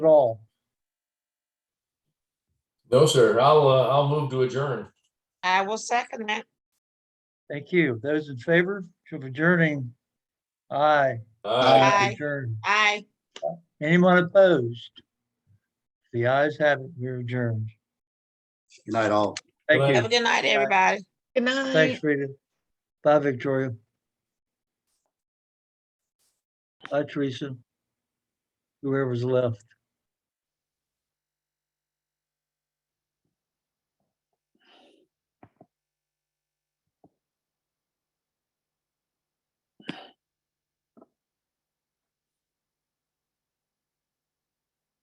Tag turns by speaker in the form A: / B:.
A: at all.
B: No, sir. I'll, uh, I'll move to adjourn.
C: I will second that.
A: Thank you. Those in favor of adjourning? Aye.
B: Aye.
C: Aye.
A: Adjourn.
C: Aye.
A: Anyone opposed? The ayes have it. We're adjourned.
D: Good night, all.
A: Thank
C: Have a
A: you.
C: good night, everybody.
E: Good night.
A: Thanks, Rita. Bye, Victoria. Bye, Teresa. Whoever's left.